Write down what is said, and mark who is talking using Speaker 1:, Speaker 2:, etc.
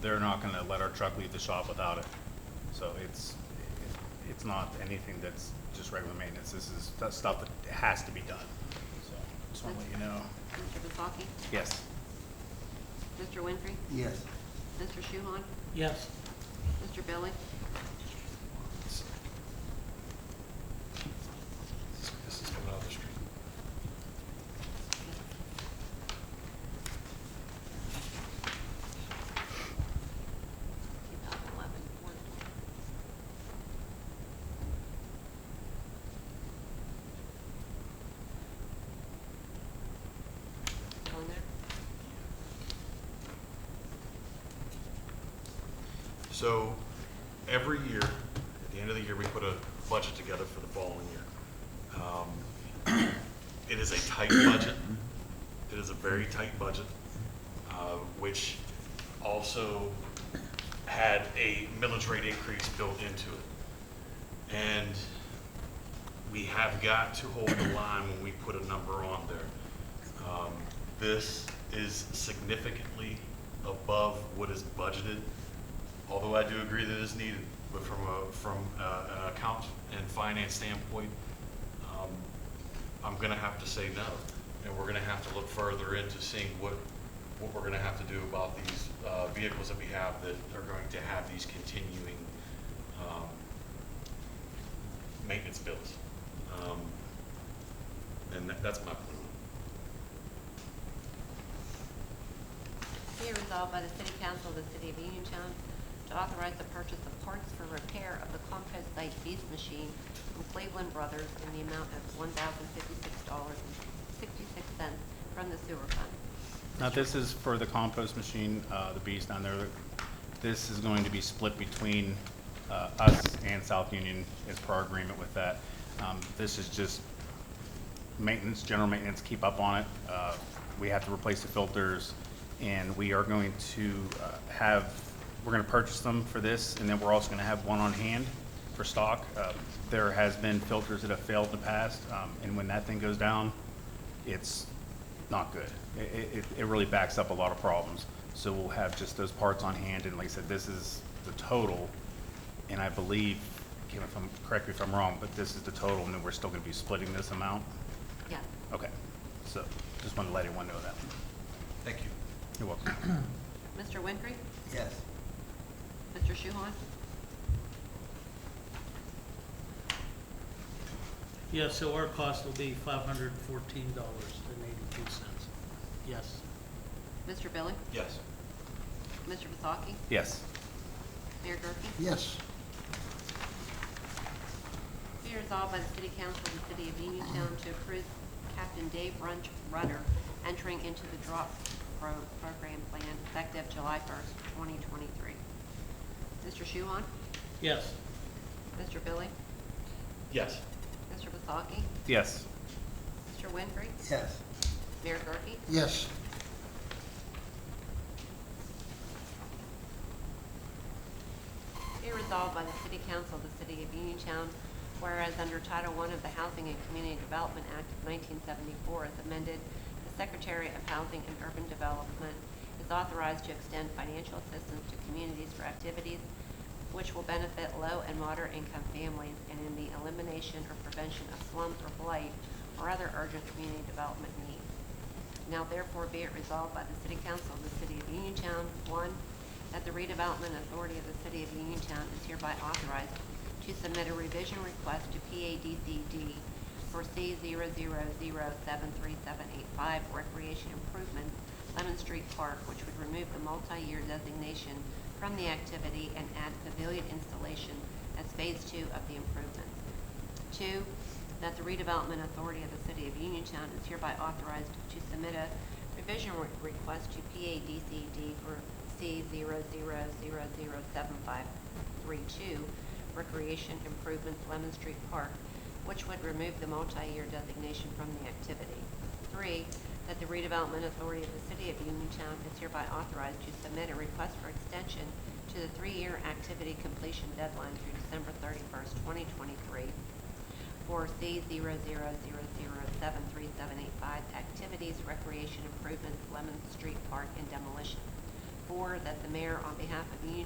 Speaker 1: they're not gonna let our truck leave the shop without it. So it's, it's not anything that's just regular maintenance, this is that stuff that has to be done, so, just wanna let you know.
Speaker 2: Mr. Vasaki?
Speaker 1: Yes,
Speaker 2: Mr. Winfrey?
Speaker 3: Yes.
Speaker 2: Mr. Shuhon?
Speaker 4: Yes.
Speaker 2: Mr. Billy?
Speaker 5: This is coming off the street.
Speaker 2: On there?
Speaker 5: So every year, at the end of the year, we put a budget together for the following year. Um, It is a tight budget. It is a very tight budget, uh, which also had a millage rate increase built into it. And we have got to hold the line when we put a number on there. Um, This is significantly above what is budgeted, although I do agree that it is needed, but from a, from uh, an account and finance standpoint, um, I'm gonna have to say no, and we're gonna have to look further into seeing what, what we're gonna have to do about these uh, vehicles that we have that are going to have these continuing um, maintenance bills. Um, And that- that's my point.
Speaker 2: Be it resolved by the City Council of the City of Uniontown to authorize the purchase of parts for repair of the compost site beast machine from Cleveland Brothers in the amount of one thousand fifty-six dollars and sixty-six cents from the sewer fund.
Speaker 1: now this is for the compost machine, uh, the bees down there, this is going to be split between, uh, us and South Union as per our agreement with that. Um, this is just maintenance, general maintenance, keep up on it. Uh, We have to replace the filters, and we are going to uh, have, we're going to purchase them for this, and then we're also going to have one on hand for stock. Uh, There has been filters that have failed in the past, um, and when that thing goes down, it's not good. It, it, it really backs up a lot of problems. So we'll have just those parts on hand, and like I said, this is the total, and I believe, Kim, if I'm, correct me if I'm wrong, but this is the total, and then we're still going to be splitting this amount?
Speaker 2: Yes.
Speaker 1: Okay, so just wanted to let everyone know that.
Speaker 5: Thank you.
Speaker 1: You're welcome.
Speaker 2: Mr. Winfrey?
Speaker 3: Yes.
Speaker 2: Mr. Shuhon?
Speaker 4: Yeah, so our cost will be five hundred and fourteen dollars and eighty-two cents. Yes.
Speaker 2: Mr. Billy?
Speaker 5: Yes.
Speaker 2: Mr. Vasaki?
Speaker 1: Yes,
Speaker 2: Mayor Gurke?
Speaker 3: Yes.
Speaker 2: Be resolved by the City Council of the City of Uniontown to approve Captain Dave Run- Rudder entering into the drop pro- program plan effective July 1st, 2023. Mr. Shuhon?
Speaker 4: Yes.
Speaker 2: Mr. Billy?
Speaker 5: Yes.
Speaker 2: Mr. Vasaki?
Speaker 1: yes,
Speaker 2: Mr. Winfrey?
Speaker 3: Yes.
Speaker 2: Mayor Gurke?
Speaker 3: Yes.
Speaker 2: Be resolved by the City Council of the City of Uniontown, whereas under Title I of the Housing and Community Development Act of 1974 as amended, the Secretary of Housing and Urban Development is authorized to extend financial assistance to communities for activities which will benefit low and moderate income families and in the elimination or prevention of slums or blight or other urgent community development needs. Now therefore be it resolved by the City Council of the City of Uniontown, one, that the redevelopment authority of the City of Uniontown is hereby authorized to submit a revision request to PADCD for C 73 recreation improvement, Lemon Street Park, which would remove the multi-year designation from the activity and add pavilion installation as phase two of the improvements. Two, that the redevelopment authority of the city of Uniontown is hereby authorized to submit a revision re- request to PADCD for C 73 Recreation Improvements Lemon Street Park, which would remove the multi-year designation from the activity. Three, that the redevelopment authority of the city of Uniontown is hereby authorized to submit a request for extension to the three-year activity completion deadline through December thirty-first, twenty twenty-three for C 73 activities, recreation improvements, Lemon Street Park, and demolition. four, that the mayor, on behalf of the Union